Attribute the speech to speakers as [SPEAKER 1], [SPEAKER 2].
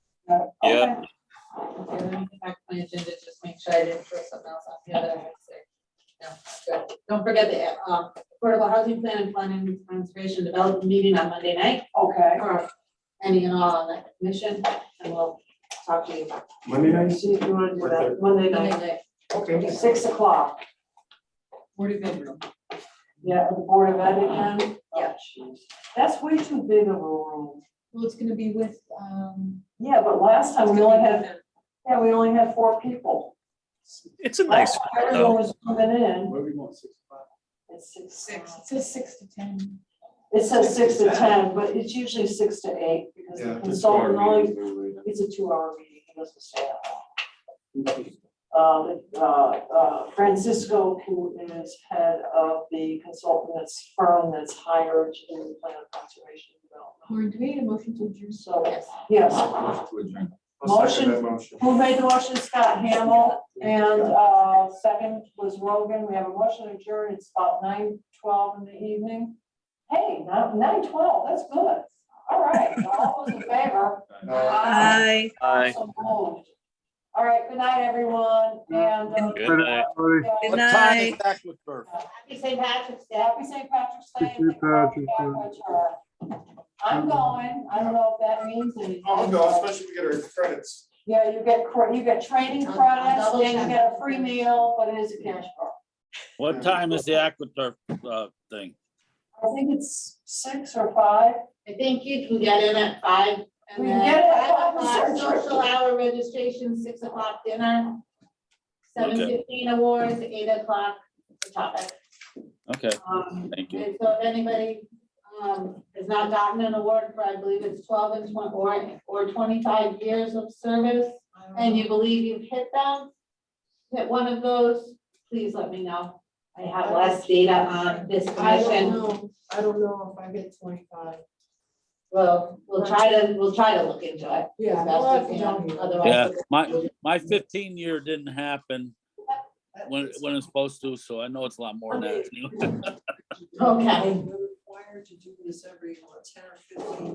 [SPEAKER 1] the other thing back to my agenda, just make sure I didn't throw something else off the other. end, so, No, good. Don't forget the, um, affordable housing plan and planning and conservation development meeting on Monday night,
[SPEAKER 2] Okay.
[SPEAKER 1] or any and all on that commission, and we'll talk to you about
[SPEAKER 3] Monday night?
[SPEAKER 2] See if you wanna do
[SPEAKER 3] What
[SPEAKER 2] that Monday
[SPEAKER 1] Monday
[SPEAKER 2] night,
[SPEAKER 1] night.
[SPEAKER 3] Okay.
[SPEAKER 2] six o'clock,
[SPEAKER 1] Forty bedroom.
[SPEAKER 2] yeah, at the Board of Ed again. Oh,
[SPEAKER 1] Yeah.
[SPEAKER 2] jeez. That's way too big of a room.
[SPEAKER 4] Well, it's gonna be with, um.
[SPEAKER 2] Yeah, but last time we only had, yeah, we only had four people.
[SPEAKER 5] It's a nice,
[SPEAKER 6] Oh,
[SPEAKER 2] Last time Everyone was coming in.
[SPEAKER 3] What do we want, six o'clock?
[SPEAKER 2] It's
[SPEAKER 4] Six, it says six to ten.
[SPEAKER 2] It says six to
[SPEAKER 3] Six to
[SPEAKER 2] ten, but it's usually six to eight because the consultant only, it's a two-hour meeting, he doesn't stay that long. uh, uh, uh, Francisco, who is head of the consultant's firm that's hired to do the plan of conservation development.
[SPEAKER 4] Or do we need a motion to adjourn?
[SPEAKER 2] So,
[SPEAKER 1] Yes.
[SPEAKER 2] yes,
[SPEAKER 3] I'll second that motion.
[SPEAKER 2] who made the motion? Scott Hamel, and, uh, second was Rogan. We have a motion to adjourn. It's about nine twelve in the evening. Hey, nine, nine twelve, that's good. All right, all those in favor?
[SPEAKER 3] Aye.
[SPEAKER 5] Aye.
[SPEAKER 2] So moved. All right, good night, everyone, and. uh,
[SPEAKER 5] Good night.
[SPEAKER 2] yeah.
[SPEAKER 6] What time is Eckletburg?
[SPEAKER 1] Happy St. Patrick's Day.
[SPEAKER 2] Happy St. Patrick's Day.
[SPEAKER 7] Happy St. Patrick's Day.
[SPEAKER 2] I'm going, I don't know if that means anything.
[SPEAKER 3] I'll go, especially if we get our credits.
[SPEAKER 2] Yeah, you get, cre- you get training
[SPEAKER 1] I'll- I'll
[SPEAKER 2] credits,
[SPEAKER 1] double
[SPEAKER 2] then you
[SPEAKER 1] check.
[SPEAKER 2] get a free meal, but it is a cash bar.
[SPEAKER 6] What time is the Eckletburg, uh, thing?
[SPEAKER 2] I think it's six or five.
[SPEAKER 1] I think you can get in at five. and
[SPEAKER 2] We
[SPEAKER 1] then
[SPEAKER 2] get it at five,
[SPEAKER 1] five o'clock
[SPEAKER 2] sure.
[SPEAKER 1] Social hour registration, six o'clock dinner, seven
[SPEAKER 6] Okay.
[SPEAKER 1] fifteen awards, eight o'clock the topic.
[SPEAKER 6] Okay,
[SPEAKER 1] Um,
[SPEAKER 6] thank you.
[SPEAKER 1] And so if anybody um, has not gotten an award for, I believe it's twelve and twenty, or, or twenty-five years of service, and you believe you've hit them, hit one of those, please let me know. I have less data on this
[SPEAKER 4] I don't
[SPEAKER 1] commission.
[SPEAKER 4] know, I don't know if I get twenty-five.
[SPEAKER 1] We'll, we'll try to, we'll try to look into it.
[SPEAKER 4] Yeah.
[SPEAKER 1] as best we can,
[SPEAKER 6] Yeah,
[SPEAKER 1] Otherwise,
[SPEAKER 6] my, my fifteen year didn't happen when, when it's supposed to, so I know it's a lot more than that.
[SPEAKER 1] okay.
[SPEAKER 2] Required to do this every, ten or fifteen